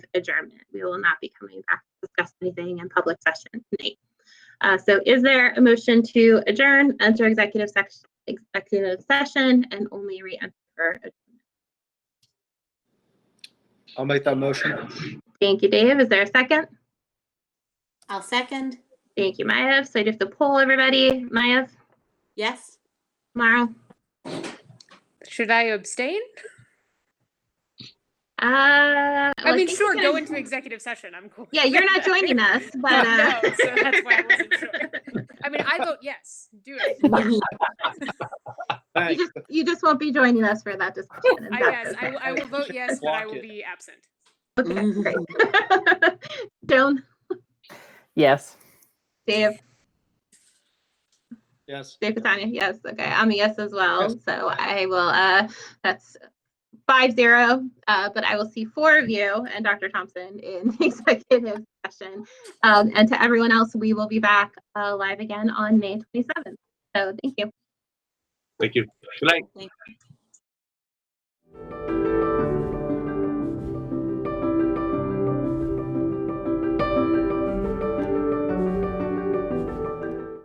adjournment. We will not be coming back to discuss anything in public session tonight. Uh, So is there a motion to adjourn, enter executive section, executive session, and only re-enter? I'll make that motion. Thank you, Dave. Is there a second? I'll second. Thank you, Maev. So I'd have to poll everybody. Maev, Yes. Mara? Should I abstain? Uh, I well, mean, think sure, you're go gonna- into executive session. I'm cool. Yeah, you're not joining us, but uh, No, so that's why I wasn't sure. I mean, I vote yes. Do it. you Thanks. just you just won't be joining us for that discussion. and I that's guess I, okay. will- I will vote yes, but I Block it. will be absent. Okay, great. Joan, Yes. Dave, Yes. Dave Catania, yes, okay, I'm a yes as well, so I will, uh, that's five zero, uh, but I will see four of you and Dr. Thompson in executive session. Um, and to everyone else, we will be back, uh, live again on May twenty-seventh, so thank you. Thank you. Good night.